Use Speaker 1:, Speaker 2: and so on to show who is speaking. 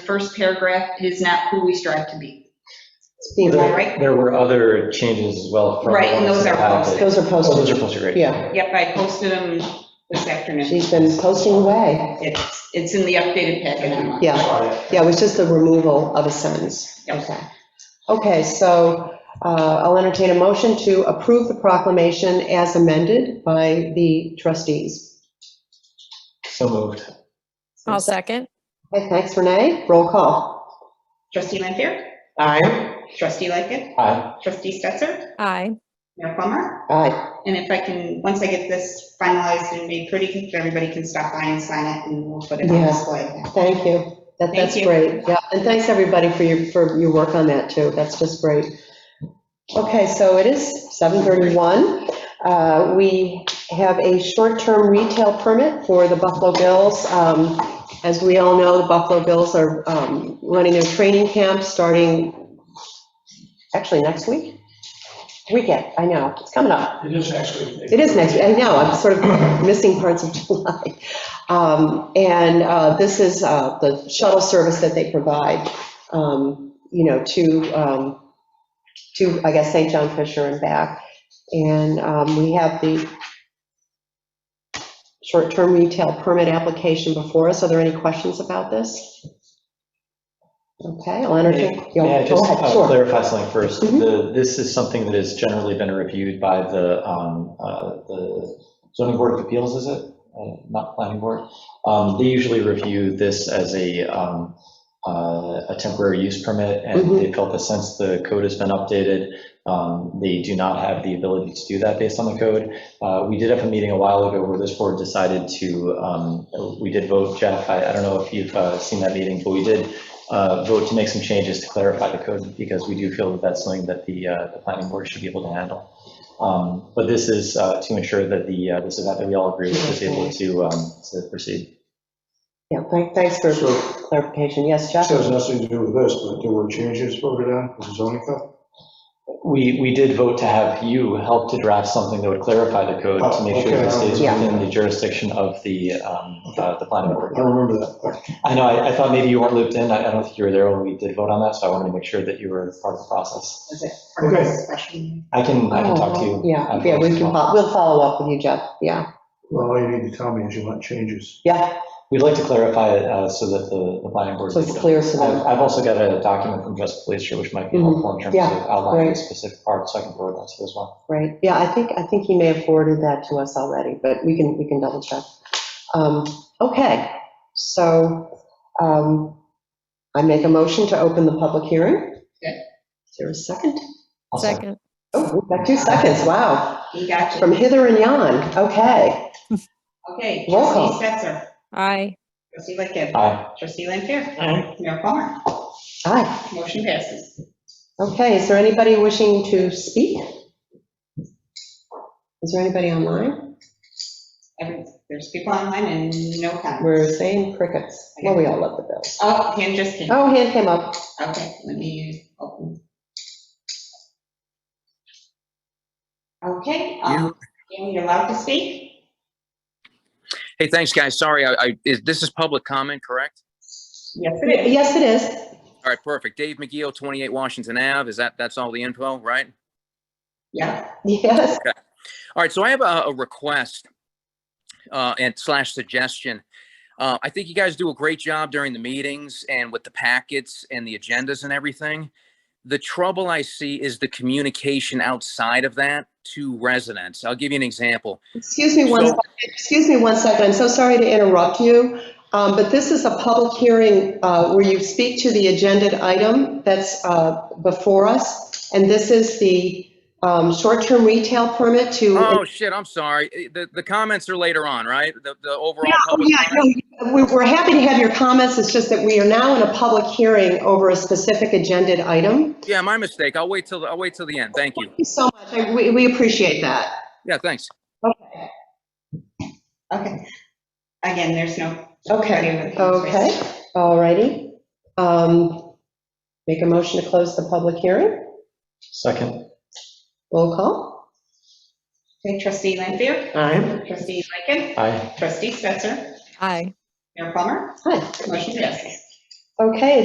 Speaker 1: first paragraph, it is not who we strive to be.
Speaker 2: Being
Speaker 3: There-
Speaker 2: right,
Speaker 3: There were other changes as well. from-
Speaker 1: Right, and those are posted.
Speaker 2: those are
Speaker 3: Oh, those are
Speaker 2: posted.
Speaker 3: posted, right.
Speaker 2: Yeah.
Speaker 1: Yep, I posted them this afternoon.
Speaker 2: She's been posting away.
Speaker 1: It's, it's in the updated packet online.
Speaker 2: Yeah. Yeah, it was just the removal of a sentence.
Speaker 1: Yep.
Speaker 2: Okay. Okay, so uh, I'll entertain a motion to approve the proclamation as amended by the trustees.
Speaker 3: So moved.
Speaker 4: I'll second.
Speaker 2: Okay, thanks, Renee. Roll call.
Speaker 1: Trustee Lanfair?
Speaker 2: Aye.
Speaker 1: Trustee Lightkit?
Speaker 3: Aye.
Speaker 1: Trustee Stetser?
Speaker 4: Aye.
Speaker 1: Mayor Plummer?
Speaker 2: Aye.
Speaker 1: And if I can, once I get this finalized and made pretty, everybody can stop by and sign it and we'll put it on
Speaker 2: Yeah.
Speaker 1: display.
Speaker 2: Thank you. That- That's
Speaker 1: Thank you.
Speaker 2: great. Yeah, and thanks, everybody, for your, for your work on that, too. That's just great. Okay, so it is 7:31. Uh, We have a short-term retail permit for the Buffalo Bills. Um, As we all know, the Buffalo Bills are um, running their training camp starting, actually, next week? Weekend, I know, it's coming up.
Speaker 5: It is actually.
Speaker 2: It is next, week. I know, I'm sort of missing parts of July. Um, And uh, this is uh, the shuttle service that they provide, um, you know, to, um, to, I guess, St. John Fisher and back. And um, we have the short-term retail permit application before us. Are there any questions about this? Okay, I'll entertain. yeah,
Speaker 3: May I
Speaker 2: go
Speaker 3: just
Speaker 2: ahead,
Speaker 3: uh,
Speaker 2: sure.
Speaker 3: clarify something first?
Speaker 2: Mhm.
Speaker 3: The- This is something that has generally been reviewed by the um, uh, the zoning board of appeals, is it? Uh, Not planning board? Um, They usually review this as a um, uh, a temporary use permit, and
Speaker 2: Mhm.
Speaker 3: they felt that since the code has been updated, um, they do not have the ability to do that based on the code. Uh, We did have a meeting a while ago where this board decided to, um, we did vote, Jeff, I I don't know if you've uh, seen that meeting, but we did uh, vote to make some changes to clarify the code, because we do feel that that's something that the, uh, the planning board should be able to handle. Um, But this is uh, to ensure that the, uh, this event that we all agree with is able to, um, to proceed.
Speaker 2: Yeah, thank- thanks for
Speaker 5: So-
Speaker 2: clarification. Yes, Jeff?
Speaker 5: This has nothing to do with this, but there were changes voted on, with the zoning code.
Speaker 3: We, we did vote to have you help to draft something that would clarify the code to make sure that it stays
Speaker 2: Yeah.
Speaker 3: within the jurisdiction of the, um, uh, the planning board.
Speaker 5: I don't remember that.
Speaker 3: I know, I I thought maybe you weren't looped in, I I don't think you were there when we did vote on that, so I wanted to make sure that you were part of the process.
Speaker 1: Is it part of
Speaker 5: Okay.
Speaker 1: this special?
Speaker 3: I can, I can talk to you.
Speaker 2: Oh, Yeah, yeah, we can, fol- we'll follow up with you, Jeff, yeah,
Speaker 5: Well, all you need to tell me is you want changes.
Speaker 2: yeah,
Speaker 3: We'd like to clarify it uh, so that the, the planning board.
Speaker 2: so it's clear so
Speaker 3: I've
Speaker 2: them.
Speaker 3: I've also got a document from Just Glacier, which might be
Speaker 2: Mhm,
Speaker 3: helpful in terms
Speaker 2: yeah,
Speaker 3: of outlining the
Speaker 2: right.
Speaker 3: specific parts, so I can forward that to you as well.
Speaker 2: right, yeah, I think, I think he may have forwarded that to us already, but we can, we can double check. Um, Okay, so um, I make a motion to open the public hearing.
Speaker 1: Okay.
Speaker 2: Is there a second?
Speaker 3: I'll send-
Speaker 4: Second.
Speaker 2: Oh, we've got two seconds, wow,
Speaker 1: You got
Speaker 2: from
Speaker 1: you.
Speaker 2: hither and yon, okay,
Speaker 1: Okay,
Speaker 2: Roll call.
Speaker 1: trustee Stetser,
Speaker 4: Aye.
Speaker 1: trustee Lightkit,
Speaker 3: Aye.
Speaker 1: trustee Lanfair, Mayor Plummer,
Speaker 2: aye.
Speaker 1: motion passes.
Speaker 2: Okay, is there anybody wishing to speak? Is there anybody online?
Speaker 1: Every- There's people online and no comment.
Speaker 2: We're saying crickets. Well, we all love the Bills.
Speaker 1: Oh, hand just came.
Speaker 2: Oh, hand came up.
Speaker 1: Okay, let me open. Okay, um, Dan, you're allowed to speak?
Speaker 6: Hey, thanks, guys. Sorry, I, I, is, this is public comment, correct?
Speaker 1: Yes, it is.
Speaker 2: Yes, it is.
Speaker 6: All right, perfect. Dave McGee, 28 Washington Ave. Is that, that's all the info, right?
Speaker 1: Yeah,
Speaker 2: Yes.
Speaker 6: All right, so I have a, a request uh, and slash suggestion. Uh, I think you guys do a great job during the meetings and with the packets and the agendas and everything. The trouble I see is the communication outside of that to residents. I'll give you an example.
Speaker 2: Excuse me one,
Speaker 6: So-
Speaker 2: second. excuse me one second. I'm so sorry to interrupt you. um, But this is a public hearing uh, where you speak to the agenda item that's uh, before us. And this is the um, short-term retail permit to.
Speaker 6: Oh, shit, I'm sorry. Eh, The, the comments are later on, right? The, the overall
Speaker 2: Yeah, oh,
Speaker 6: public
Speaker 2: yeah,
Speaker 6: comment?
Speaker 2: no, we- We're happy to have your comments. It's just that we are now in a public hearing over a specific agenda item. Thank
Speaker 6: Yeah, my mistake. I'll wait till, the- I'll wait till the end. Thank you.
Speaker 2: you so much. I- We we appreciate that.
Speaker 6: Yeah, thanks.
Speaker 1: okay. Again, there's no.
Speaker 2: Okay, okay, all righty. Um, Make a motion to close the public hearing.
Speaker 3: Second,
Speaker 2: Roll call.
Speaker 1: Okay, trustee Lanfair,
Speaker 2: Aye.
Speaker 1: trustee Lightkit,
Speaker 3: aye.
Speaker 1: trustee Stetser,
Speaker 4: Aye.
Speaker 1: Mayor Plummer,
Speaker 2: Hi.
Speaker 1: motion passes.
Speaker 2: Okay,